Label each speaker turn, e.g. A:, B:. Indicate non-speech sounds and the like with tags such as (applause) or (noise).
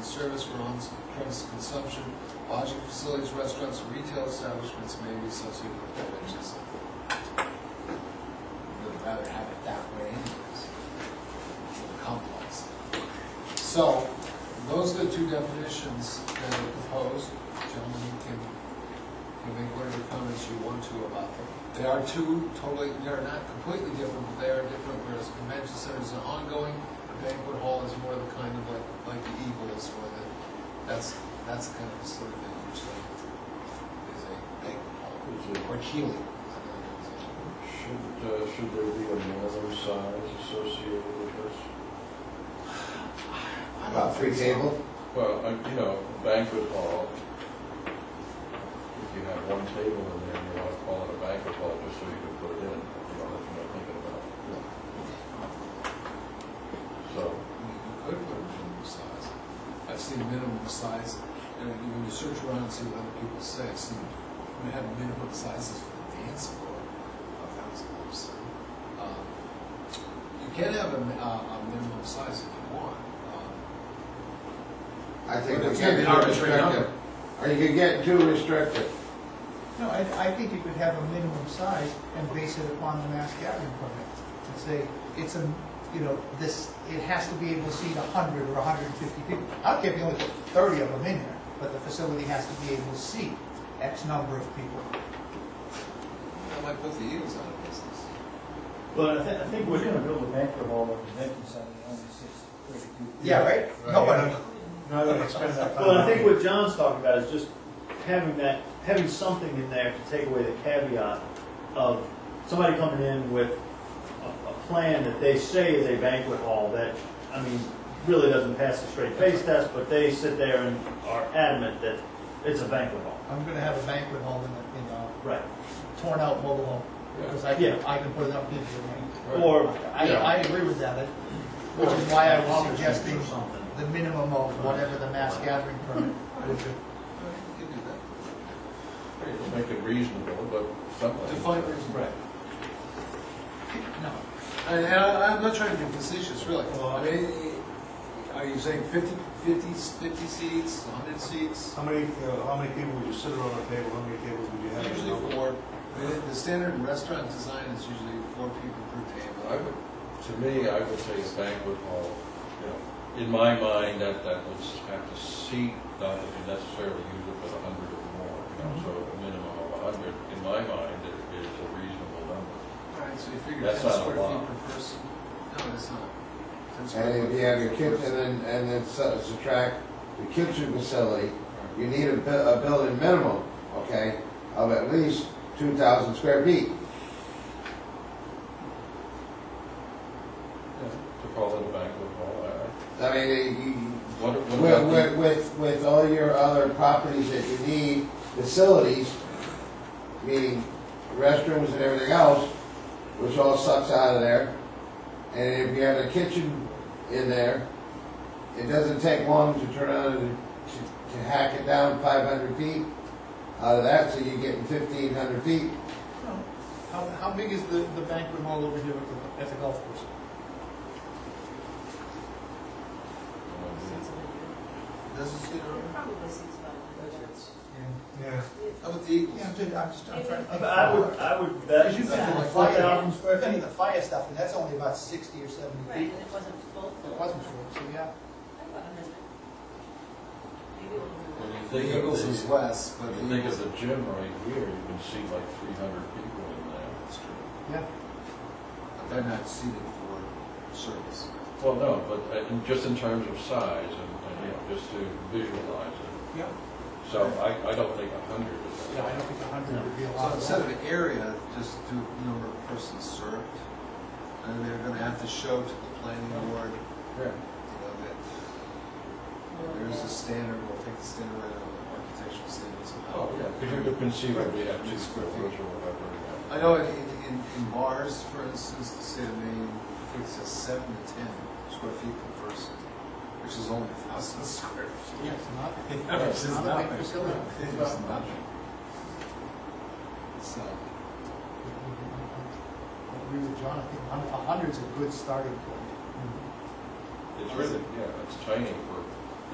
A: service for on-premise consumption. Lodging facilities, restaurants, and retail establishments may be associated with beverages. We'd rather have it that way anyways. It's a little complex. So, those are the two definitions that are proposed. Gentlemen, you can, you can make whatever comments you want to about them. They are two totally, they're not completely different, but they are different, whereas convention center is an ongoing, a banquet hall is more the kind of like, like the Eagle is for the, that's, that's the kind of facility that usually is a banquet hall.
B: Is it-
A: Or Keely. is another organization.
B: Should, uh, should there be another size associated with this?
C: About three table?
B: Well, uh, you know, a banquet hall, if you have one table in there, you want to call it a banquet hall just so you can put it in, you know, that's what I'm thinking about. So,
A: I mean, you could put a minimum size. I've seen minimum size, and if you- when you search around and see what other people say, I've seen, we have minimum sizes for the dance floor, a thousand bucks. Um, You can have a, mi- a, a minimum size if you want. Um,
C: I think
A: But
C: we
A: it's
C: get
A: an
C: too
A: arbitrary
C: restrictive. Or you could get too restrictive.
D: No, I, I think you could have a minimum size and base it upon the mass gathering permit. And say, it's a, you know, this, it has to be able to seat hundred or hundred and fifty people. I don't care if you only put thirty of them in there, but the facility has to be able to seat X number of people.
A: That might put the Eagles out of business.
E: Well, I think, I think we're gonna build a banquet hall at the convention center, that only sits thirty people.
D: Yeah, right? No one,
F: No, I don't expect that.
E: Well, I think what John's talking about is just having that, having something in there to take away the caveat of somebody coming in with a, a plan that they say is a banquet hall that, I mean, really doesn't pass the straight face test, but they sit there and are adamant that it's a banquet hall.
D: I'm gonna have a banquet hall in a, in a
E: Right.
D: torn out mobile home, because I
E: Yeah.
D: can, I can put it up in the room.
E: Or,
D: I, I agree with that, which is why I was suggesting
E: Or something.
D: the minimum of whatever the mass gathering permit would be.
A: You could do that.
B: make it reasonable, but something.
A: Define reasonable.
D: No.
A: And and I, I'm not trying to be facetious, really. I mean, are you saying 50 50 50 seats, hundred seats?
F: How many, uh, how many people would you sit around a table, how many tables would you have?
A: Usually four, the- the standard restaurant design is usually four people per
B: I
A: table.
B: would, to me, I would say a banquet hall, you know, in my mind, that, that would have to seat, not that you necessarily use it for a hundred or more, you know, so a minimum of a hundred, in my mind, it is a reasonable number.
A: Alright, so you figure ten
B: That's not a
A: square feet
B: lot.
A: per person? No, it's not. 10 square
C: And if
A: feet
C: you have
A: per
C: your kitchen,
A: person.
C: and then, and then su- subtract the kitchen facility, you need a, bu- a building minimum, okay, of at least two thousand square feet.
B: To call it a banquet hall, I, I-
C: I mean, you- you,
B: what, what
C: With,
B: about the,
C: with, with, with all your other properties that you need, facilities, meaning restrooms and everything else, which all sucks out of there. And if you have a kitchen in there, it doesn't take long to turn on and to, to hack it down five hundred feet out of that, so you're getting fifteen hundred feet.
D: How, how big is the, the banquet hall over here at the, at the golf course?
A: Doesn't it,
G: Probably six months.
F: Yeah.
A: how about the Eagles?
D: Yeah, I'm just, I'm just, I'm trying to.
E: But I would, I would bet.
D: Because you've
A: something
D: got the
A: like
D: fire,
E: 4,000 square
D: you've got
E: feet.
D: the fire stuff, and that's only about sixty or seventy
G: Right,
D: feet.
G: and it wasn't full.
D: It wasn't full, so yeah.
B: when you
A: The
B: think of
A: Eagles
B: the-
A: is less, but
B: When
A: the
B: you think of
A: Eagles.
B: the gym right here, you can seat like three hundred people in there.
A: That's true.
D: Yeah.
A: But They're not seated for service.
B: Well, no, but uh, in- just in terms of size and, and, you know, just to visualize it.
D: Yeah.
B: So I, I don't think a hundred is.
D: I don't think a hundred would be a
A: So
D: lot.
A: instead of an area, just do number of persons served. And they're gonna have to show to the planning board,
B: Yeah.
A: you know, that There's a standard, we'll take the standard out of the architectural standards.
B: Oh, yeah, because you could conceivably have two
A: Right.
B: square foot or whatever.
A: I know in, in, in bars, for instance, the state of Maine, I think it says seven to ten square feet per person, which is only a thousand (laughs) square feet.
D: Yeah, it's not,
A: Which is
D: not a big
A: nothing.
D: facility.
A: It's nothing. So,
D: I agree with John, I think Mm. a hun- a hundred's a good starting point.
B: It's really, yeah, it's tiny for